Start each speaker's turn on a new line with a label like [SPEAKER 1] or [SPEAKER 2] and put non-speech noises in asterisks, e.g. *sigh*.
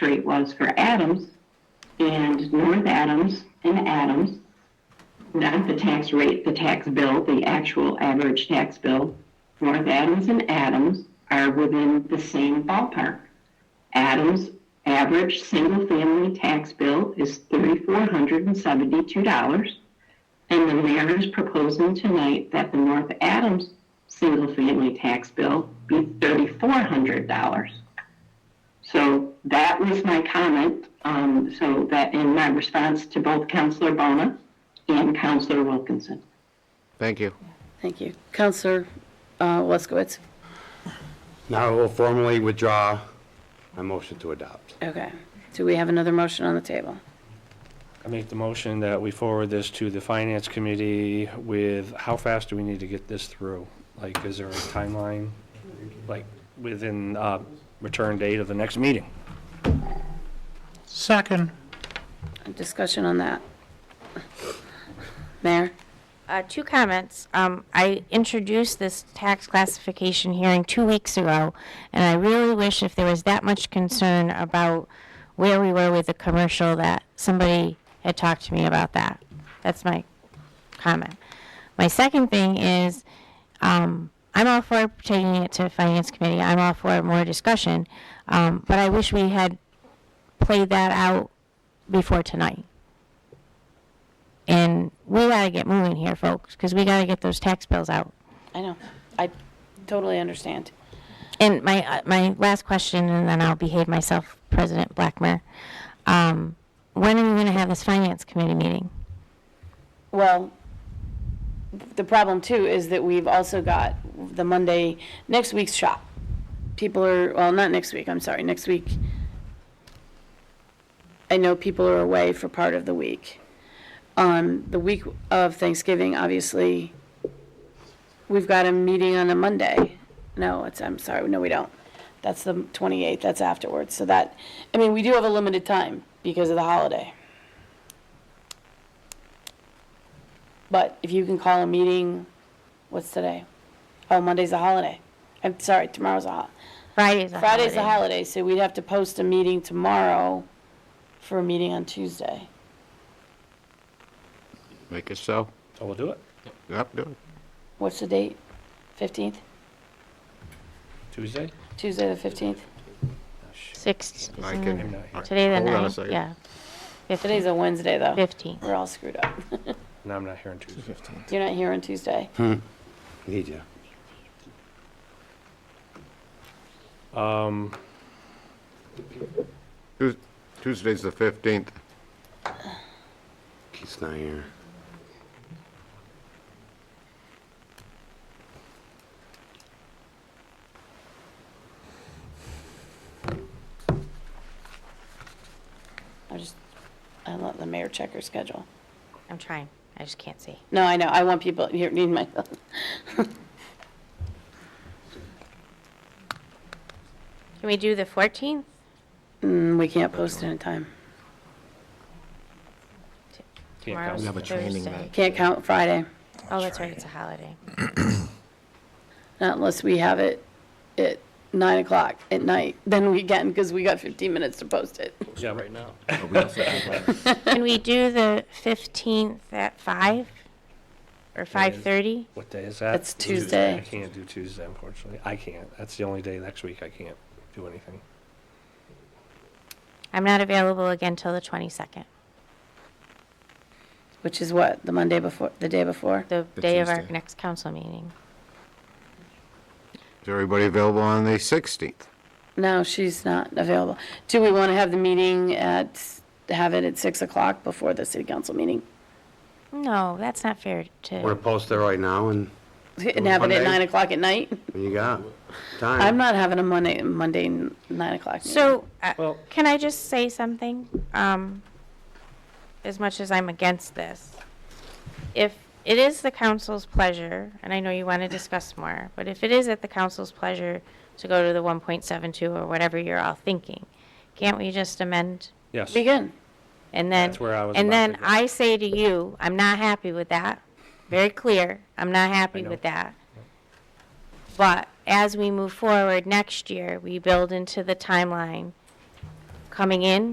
[SPEAKER 1] Street was for Adams and North Adams and Adams, not the tax rate, the tax bill, the actual average tax bill. North Adams and Adams are within the same ballpark. Adams' average single-family tax bill is thirty-four hundred and seventy-two dollars. And the mayor is proposing tonight that the North Adams single-family tax bill be thirty-four hundred dollars. So that was my comment, um, so that in my response to both Counselor Bona and Counselor Wilkinson.
[SPEAKER 2] Thank you.
[SPEAKER 3] Thank you. Counselor uh, Luskowitz?
[SPEAKER 2] Now I will formally withdraw my motion to adopt.
[SPEAKER 3] Okay. Do we have another motion on the table?
[SPEAKER 4] I make the motion that we forward this to the finance committee with, how fast do we need to get this through? Like, is there a timeline, like, within, uh, return date of the next meeting?
[SPEAKER 5] Second.
[SPEAKER 3] Discussion on that? Mayor?
[SPEAKER 6] Uh, two comments. Um, I introduced this tax classification hearing two weeks ago, and I really wish if there was that much concern about where we were with the commercial, that somebody had talked to me about that. That's my comment. My second thing is, um, I'm all for taking it to finance committee. I'm all for more discussion, um, but I wish we had played that out before tonight. And we gotta get moving here, folks, because we gotta get those tax bills out.
[SPEAKER 3] I know. I totally understand.
[SPEAKER 6] And my, uh, my last question, and then I'll behave myself, President Blackmer. Um, when are we gonna have this finance committee meeting?
[SPEAKER 3] Well, the problem too is that we've also got the Monday, next week's shop. People are, well, not next week, I'm sorry, next week. I know people are away for part of the week. Um, the week of Thanksgiving, obviously, we've got a meeting on a Monday. No, it's, I'm sorry, no, we don't. That's the 28th, that's afterwards. So that, I mean, we do have a limited time because of the holiday. But if you can call a meeting, what's today? Oh, Monday's a holiday. I'm sorry, tomorrow's a hol-
[SPEAKER 6] Friday's a holiday.
[SPEAKER 3] Friday's a holiday, so we'd have to post a meeting tomorrow for a meeting on Tuesday.
[SPEAKER 2] Make it so.
[SPEAKER 4] So we'll do it.
[SPEAKER 2] Yep, do it.
[SPEAKER 3] What's the date? Fifteenth?
[SPEAKER 4] Tuesday?
[SPEAKER 3] Tuesday the fifteenth?
[SPEAKER 6] Six,
[SPEAKER 2] I
[SPEAKER 6] isn't
[SPEAKER 2] can-
[SPEAKER 6] it? today the
[SPEAKER 2] Hold on a
[SPEAKER 6] ninth,
[SPEAKER 2] second.
[SPEAKER 6] yeah.
[SPEAKER 3] Today's a Wednesday, though.
[SPEAKER 6] Fifteenth.
[SPEAKER 3] We're all screwed up.
[SPEAKER 4] No, I'm not here on Tuesday.
[SPEAKER 3] You're not here on Tuesday.
[SPEAKER 2] Need you.
[SPEAKER 4] Um,
[SPEAKER 2] Tues- Tuesday's the 15th. He's not here.
[SPEAKER 3] I just, I let the mayor check her schedule.
[SPEAKER 6] I'm trying, I just can't see.
[SPEAKER 3] No, I know, I want people, here, need my, *laughs*
[SPEAKER 6] Can we do the fourteenth?
[SPEAKER 3] Mm, we can't post it in time.
[SPEAKER 4] can't count.
[SPEAKER 6] We have a training night.
[SPEAKER 3] Can't count Friday.
[SPEAKER 6] Oh, that's right, it's a holiday.
[SPEAKER 3] Not unless we have it at nine o'clock at night, then we can, because we got fifteen minutes to post it.
[SPEAKER 4] Yeah, right now.
[SPEAKER 6] Can we do the fifteenth at five? Or five-thirty?
[SPEAKER 4] What day is that?
[SPEAKER 3] That's Tuesday.
[SPEAKER 4] I can't do Tuesday, unfortunately. I can't. That's the only day next week I can't do anything.
[SPEAKER 6] I'm not available again till the twenty-second,
[SPEAKER 3] Which is what, the Monday before, the day before?
[SPEAKER 6] the day of our
[SPEAKER 7] Tuesday.
[SPEAKER 6] next council meeting.
[SPEAKER 2] Is everybody available on the 16th?
[SPEAKER 3] No, she's not available. Do we want to have the meeting at, have it at six o'clock before the city council meeting?
[SPEAKER 6] No, that's not fair
[SPEAKER 2] We're
[SPEAKER 6] to,
[SPEAKER 2] post it right now and
[SPEAKER 3] And have it at
[SPEAKER 2] Monday?
[SPEAKER 3] nine o'clock at night?
[SPEAKER 2] what you got time.
[SPEAKER 3] I'm not having a Monday, Monday n- nine o'clock. meeting.
[SPEAKER 6] so, uh,
[SPEAKER 4] Well-
[SPEAKER 6] can I just say something? Um, As much as I'm against this, if it is the council's pleasure, and I know you want to discuss more, but if it is at the council's pleasure to go to the one point seven two or whatever you're all thinking, can't we just amend
[SPEAKER 4] Yes.
[SPEAKER 3] Be good.
[SPEAKER 6] And then,
[SPEAKER 4] That's where I was
[SPEAKER 6] and
[SPEAKER 4] about
[SPEAKER 6] then
[SPEAKER 4] to go.
[SPEAKER 6] I say to you, I'm not happy with that. Very clear, I'm not happy
[SPEAKER 4] know.
[SPEAKER 6] with that. But as we move forward next year, we build into the timeline coming in